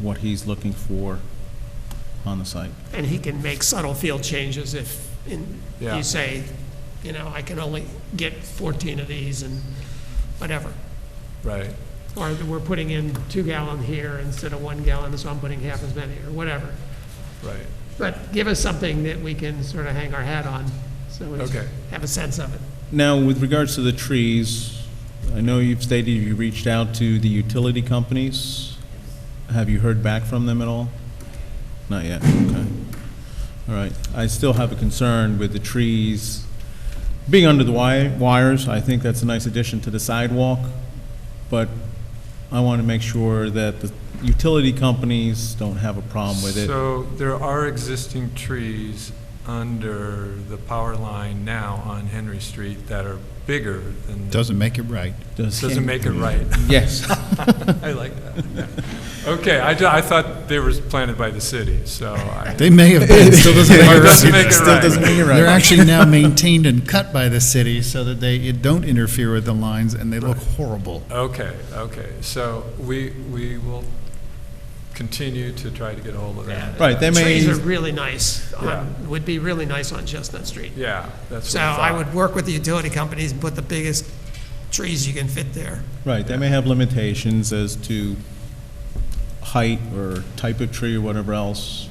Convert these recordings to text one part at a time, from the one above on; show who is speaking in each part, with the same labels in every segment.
Speaker 1: what he's looking for on the site.
Speaker 2: And he can make subtle field changes if in-
Speaker 3: Yeah.
Speaker 2: you say, you know, I can only get 14 of these and whatever.
Speaker 3: Right.
Speaker 2: Or that we're putting in two gallon here instead of one gallon, so I'm putting half as many, or whatever.
Speaker 3: Right.
Speaker 2: But give us something that we can sort of hang our hat on, so we
Speaker 3: Okay.
Speaker 2: have a sense of it.
Speaker 1: Now, with regards to the trees, I know you've stated you reached out to the utility companies. Have you heard back from them at all? Not yet, okay. All right. I still have a concern with the trees being under the wi- wires. I think that's a nice addition to the sidewalk, but I want to make sure that the utility companies don't have a problem with it.
Speaker 3: So there are existing trees under the power line now on Henry Street that are bigger than.
Speaker 4: Doesn't make it right.
Speaker 1: Does-
Speaker 3: Doesn't make it right.
Speaker 1: Yes.
Speaker 3: I like that. yeah. Okay, I, ju- I thought they were planted by the city, so I.
Speaker 4: They may have been, still doesn't make it
Speaker 3: Doesn't make
Speaker 4: right.
Speaker 3: it
Speaker 1: Still
Speaker 3: right.
Speaker 1: doesn't make it right.
Speaker 4: They're actually now maintained and cut by the city so that they it don't interfere with the lines and they look horrible.
Speaker 3: Okay, okay, so we, we will continue to try to get a hold of that.
Speaker 1: Right, they may.
Speaker 2: Trees are really nice, on-
Speaker 3: Yeah.
Speaker 2: would be really nice on Chestnut Street.
Speaker 3: Yeah, that's
Speaker 2: So
Speaker 3: what
Speaker 2: I
Speaker 3: I thought.
Speaker 2: would work with the utility companies and put the biggest trees you can fit there.
Speaker 1: Right, they may have limitations as to height or type of tree or whatever else.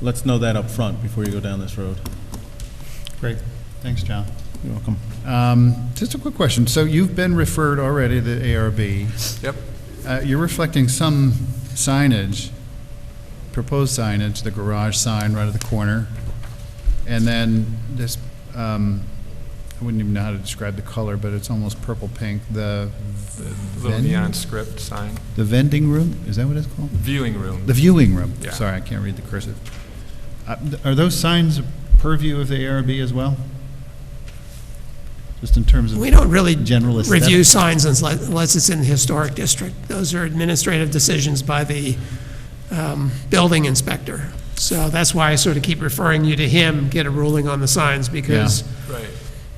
Speaker 1: Let's know that up front before you go down this road.
Speaker 4: Great. Thanks, John.
Speaker 1: You're welcome.
Speaker 4: Um, Just a quick question. So you've been referred already to the ARB.
Speaker 3: Yep,
Speaker 4: Uh, You're reflecting some signage, proposed signage, the garage sign right at the corner. And then this, um, I wouldn't even know how to describe the color, but it's almost purple pink, the
Speaker 3: little
Speaker 4: Then-
Speaker 3: neon script sign,
Speaker 4: the vending room, is that what it's called?
Speaker 3: viewing room.
Speaker 4: The viewing room.
Speaker 3: Yeah.
Speaker 4: Sorry, I can't read the cursive. Uh, th- Are those signs purview of the ARB as well? Just in terms of
Speaker 2: We don't really
Speaker 4: general aesthetic?
Speaker 2: review signs unless unless it's in the historic district. Those are administrative decisions by the um, building inspector. So that's why I sort of keep referring you to him, get a ruling on the signs, because
Speaker 3: Right,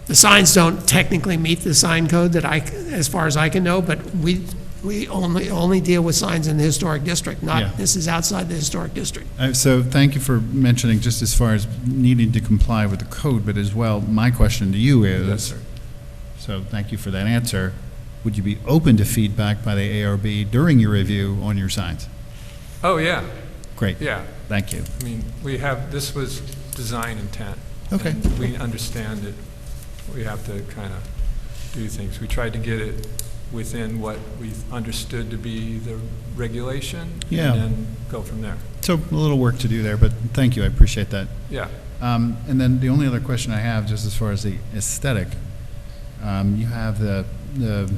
Speaker 2: the signs don't technically meet the sign code that I, c- as far as I can know, but we, we only, only deal with signs in the historic district,
Speaker 4: Yeah.
Speaker 2: not, this is outside the historic district.
Speaker 4: Uh, So thank you for mentioning, just as far as needing to comply with the code, but as well, my question to you is...
Speaker 3: Yes, sir.
Speaker 4: So thank you for that answer. Would you be open to feedback by the ARB during your review on your signs?
Speaker 3: oh, yeah,
Speaker 4: Great.
Speaker 3: yeah.
Speaker 4: Thank you.
Speaker 3: I mean, we have, this was design intent.
Speaker 4: Okay.
Speaker 3: And We understand it. We have to kind of do things. We tried to get it within what we understood to be the regulation.
Speaker 4: Yeah.
Speaker 3: And then go from there.
Speaker 4: So a little work to do there, but thank you, I appreciate that.
Speaker 3: Yeah.
Speaker 4: Um, And then the only other question I have, just as far as the aesthetic, um, you have the, the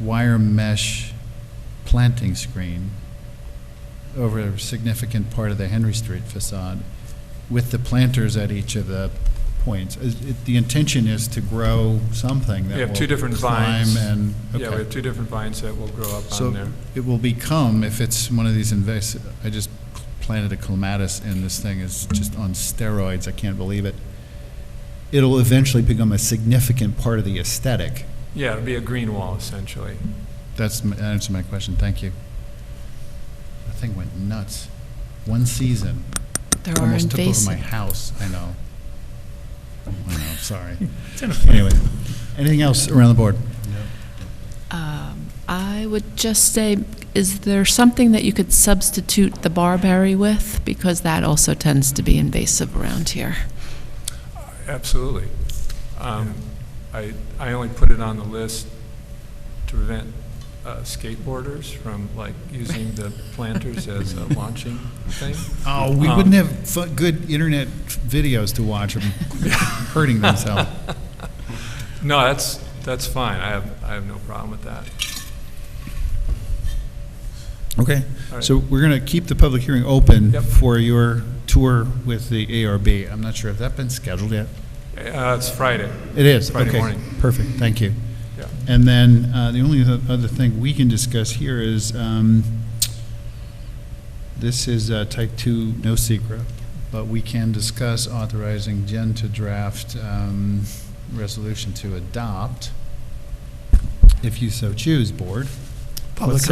Speaker 4: wire mesh planting screen over a significant part of the Henry Street facade with the planters at each of the points. Is it- The intention is to grow something that
Speaker 3: We
Speaker 4: will
Speaker 3: have two different
Speaker 4: climb
Speaker 3: vines.
Speaker 4: and,
Speaker 3: Yeah, we
Speaker 4: okay.
Speaker 3: have two different vines that will grow up on there.
Speaker 4: So it will become, if it's one of these invasive, I just planted a clematis and this thing is just on steroids, I can't believe it. It'll eventually become a significant part of the aesthetic.
Speaker 3: Yeah, it'll be a green wall essentially.
Speaker 4: That's, m- that answered my question, thank you. That thing went nuts. One season,
Speaker 5: There are
Speaker 4: almost took over my
Speaker 5: invasive.
Speaker 4: house, I know. I know, sorry. Anyway, anything else around the board?
Speaker 5: Um, I would just say, is there something that you could substitute the barberry with? Because that also tends to be invasive around here.
Speaker 3: Absolutely. Um, I, I only put it on the list to prevent uh, skateboarders from like using the planters as a launching thing.
Speaker 4: Oh, we
Speaker 3: Um,
Speaker 4: wouldn't have fu- good internet videos to watch them hurting themselves.
Speaker 3: No, that's, that's fine. I have, I have no problem with that.
Speaker 4: Okay,
Speaker 3: All right.
Speaker 4: so we're going to keep the public hearing open
Speaker 3: Yep.
Speaker 4: for your tour with the ARB. I'm not sure, if that's been scheduled yet?
Speaker 3: Uh, It's Friday.
Speaker 4: It is,
Speaker 3: Friday
Speaker 4: okay.
Speaker 3: morning.
Speaker 4: Perfect, thank you.
Speaker 3: Yeah.
Speaker 4: And then uh, the only oth- other thing we can discuss here is, um, this is uh, type 2, no secret, but we can discuss authorizing Jen to draft um, resolution to adopt, if you so choose, board.
Speaker 2: Public